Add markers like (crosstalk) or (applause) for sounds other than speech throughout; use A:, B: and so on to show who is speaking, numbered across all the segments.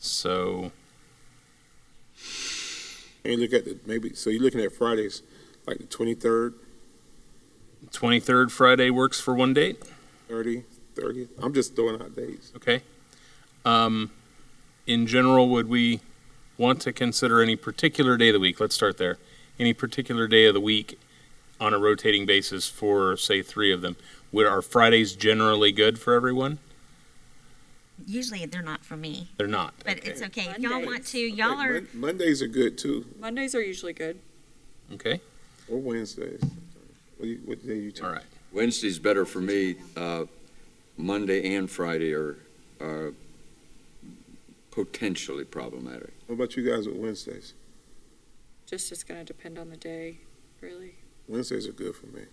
A: So
B: And look at the, maybe, so you're looking at Fridays, like the twenty-third,
A: 23rd Friday works for one date.
B: thirty, thirty. I'm just throwing out days.
A: Okay. Um, in general, would we want to consider any particular day of the week? Let's start there. Any particular day of the week on a rotating basis for, say, three of them? Would are Fridays generally good for everyone?
C: Usually they're not for me,
A: They're not.
C: but
A: okay.
C: it's okay. If y'all want
D: Mondays.
C: to, y'all
B: Like,
C: are
B: Mon- Mondays are good too,
D: Mondays are usually good.
A: okay.
B: or Wednesdays. What, do you, what day you? choose?
A: All right.
E: Wednesday's better for me. Uh, Monday and Friday are, are potentially problematic.
B: What about you guys with Wednesdays?
D: Just it's gonna depend on the day, really.
B: Wednesdays are good for me.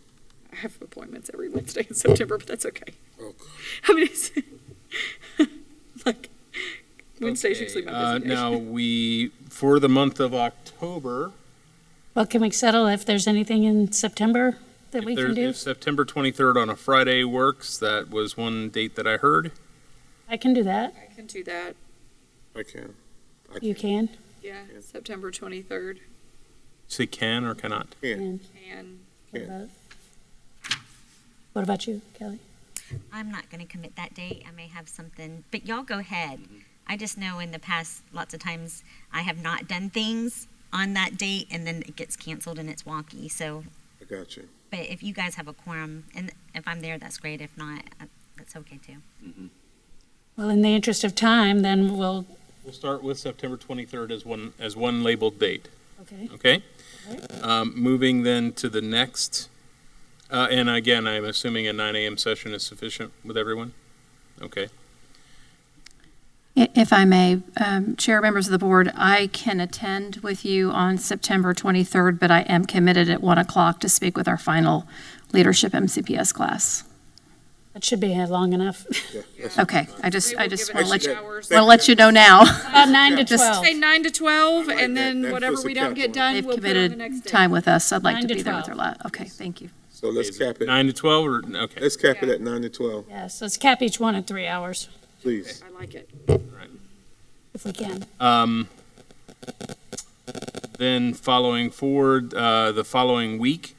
D: I have appointments every Wednesday in September, but that's okay. (laughs)
B: Oh, God.
D: I mean, it's (laughs) like Wednesday's
A: Okay,
D: usually my
A: Uh,
D: busy day.
A: now we for the month of October.
F: Well, can we settle if there's anything in September that we
A: if, there-
F: can do?
A: if September 23rd on a Friday works, that was one date that I heard.
F: I can do that.
D: (laughs) I can do that.
B: I can. I
F: You can.
D: Yeah,
B: Yeah.
D: September twenty third
A: Say can or cannot.
B: Can.
D: and
F: What
B: Yeah.
F: about- What about you, Kelly?
C: I'm not going to commit that date. I may have something, but y'all go ahead. I just know in the past, lots of times I have not done things on that date and then it gets canceled and it's wonky. So,
B: I got you.
C: but if you guys have a quorum and if I'm there, that's great. If not, uh, that's okay too.
B: Mm-hmm.
F: Well, in the interest of time, then we'll,
A: We'll start with September 23rd as one as one labeled date.
F: okay.
A: Okay. Um, Moving then to the next, uh, and again, I'm assuming a nine AM session is sufficient with everyone? Okay,
G: I- If I may, um, Chair, members of the board, I can attend with you on September 23rd, but I am committed at 1 o'clock to speak with our final leadership MCPS class.
F: That should be long enough. (laughs)
B: Yeah. that's-
G: Okay, I just, I just want to let you,
B: hours.
G: want to let you know now.
F: About nine to
B: Yeah.
D: Just
F: 12.
D: say nine to twelve,
B: like
D: and
B: that.
D: then
B: That
D: whatever
B: puts a
D: we
B: cap
D: don't get
B: on it.
D: done,
G: (laughs) They've
D: we'll put it on the
G: committed
D: next day.
G: time with us. I'd like
F: Nine
G: to
F: to
G: be there with her
F: 12.
G: lot. Okay, thank you.
B: So let's cap it,
A: nine to 12 or, okay.
B: let's cap it
D: Yeah.
B: at nine to twelve,
F: Yes, let's cap each one at three hours
B: please.
D: I like it.
F: if we can.
A: Um, Then following forward, uh, the following week,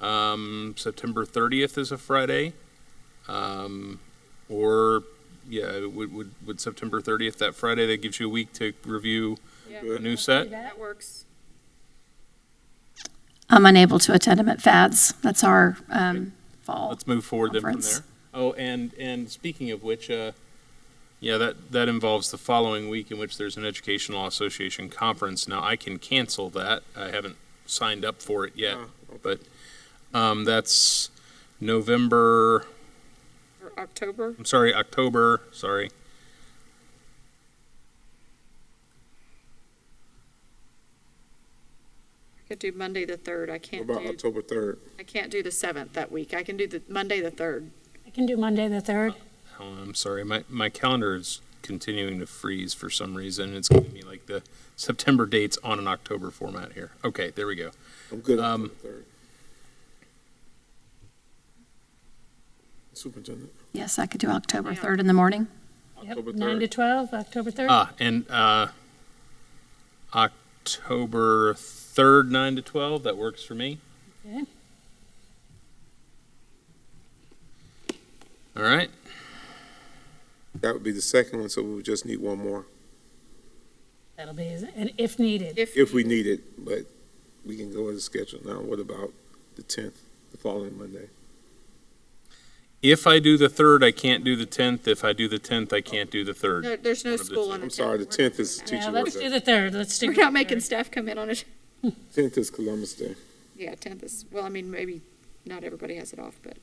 A: um, September 30th is a Friday. Um, Or, yeah, would, would, would September 30th, that Friday, that gives you a week to review
D: Yeah,
A: a new set?
D: that works.
G: I'm unable to attend them at FADS. That's our um, fall.
A: Let's move forward then from there.
G: Conference.
A: Oh, and, and speaking of which, uh, yeah, that, that involves the following week in which there's an Educational Association Conference. Now, I can cancel that. I haven't signed up for it yet.
B: Ah, okay.
A: But, um, that's November,
D: Or October.
A: I'm sorry, October, sorry.
D: I could do Monday the third. I
B: What
D: can't
B: about
D: do,
B: October third?
D: I can't do the seventh that week. I can do the Monday the third.
F: I can do Monday, the 3rd.
A: Oh, I'm sorry, my, my calendar is continuing to freeze for some reason. It's giving me like the September dates on an October format here. Okay, there we go.
B: I'm good on
A: Um,
B: October third. Superintendent,
G: Yes, I could do October
D: Yeah.
G: 3rd in the morning.
F: Yep,
B: October
F: nine to
B: third.
F: 12, October 3rd.
A: Ah, and uh, October 3rd, 9 to 12, that works for me.
F: Okay.
A: All right.
B: That would be the second one, so we would just need one more,
F: That'll be, and if needed.
B: if we need it, but we can go as a schedule now. What about the tenth, the following Monday?
A: If I do the 3rd, I can't do the 10th. If I do the 10th, I can't do the 3rd.
D: No, there's no
A: One of the
D: school
A: two.
D: on the
B: I'm
D: tenth.
B: sorry, the tenth is
F: Yeah,
B: teacher work
F: let's do
B: day.
F: the 3rd. Let's do.
D: We're
F: the
D: not making
F: 3rd.
D: staff come in on it.
B: Tenth is Columbus Day.
D: Yeah, tenth is, well, I mean, maybe not everybody has it off, but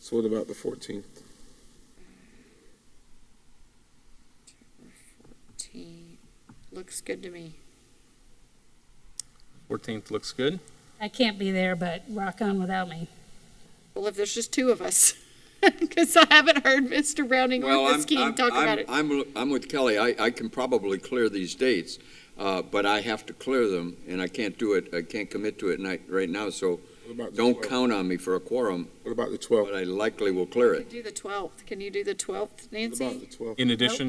B: So what about the fourteenth?
D: fourteen looks good to me.
A: 14th looks good.
F: I can't be there, but rock on without me.
D: Well, if there's just two of us, (laughs) because I haven't heard Mr. Browning or
E: Well, I'm-
D: Ms. Keen
E: I'm-
D: talk
E: I'm-
D: about it.
E: I'm, I'm with Kelly. I, I can probably clear these dates, uh, but I have to clear them, and I can't do it, I can't commit to it night, right now, so
B: What about the
E: don't
B: 12th?
E: count on me for a quorum,
B: What about the
E: but
B: twelfth?
E: I likely will clear it.
D: Do the twelfth. Can you do the twelfth,
B: What about the
D: Nancy?
B: twelfth?
A: In addition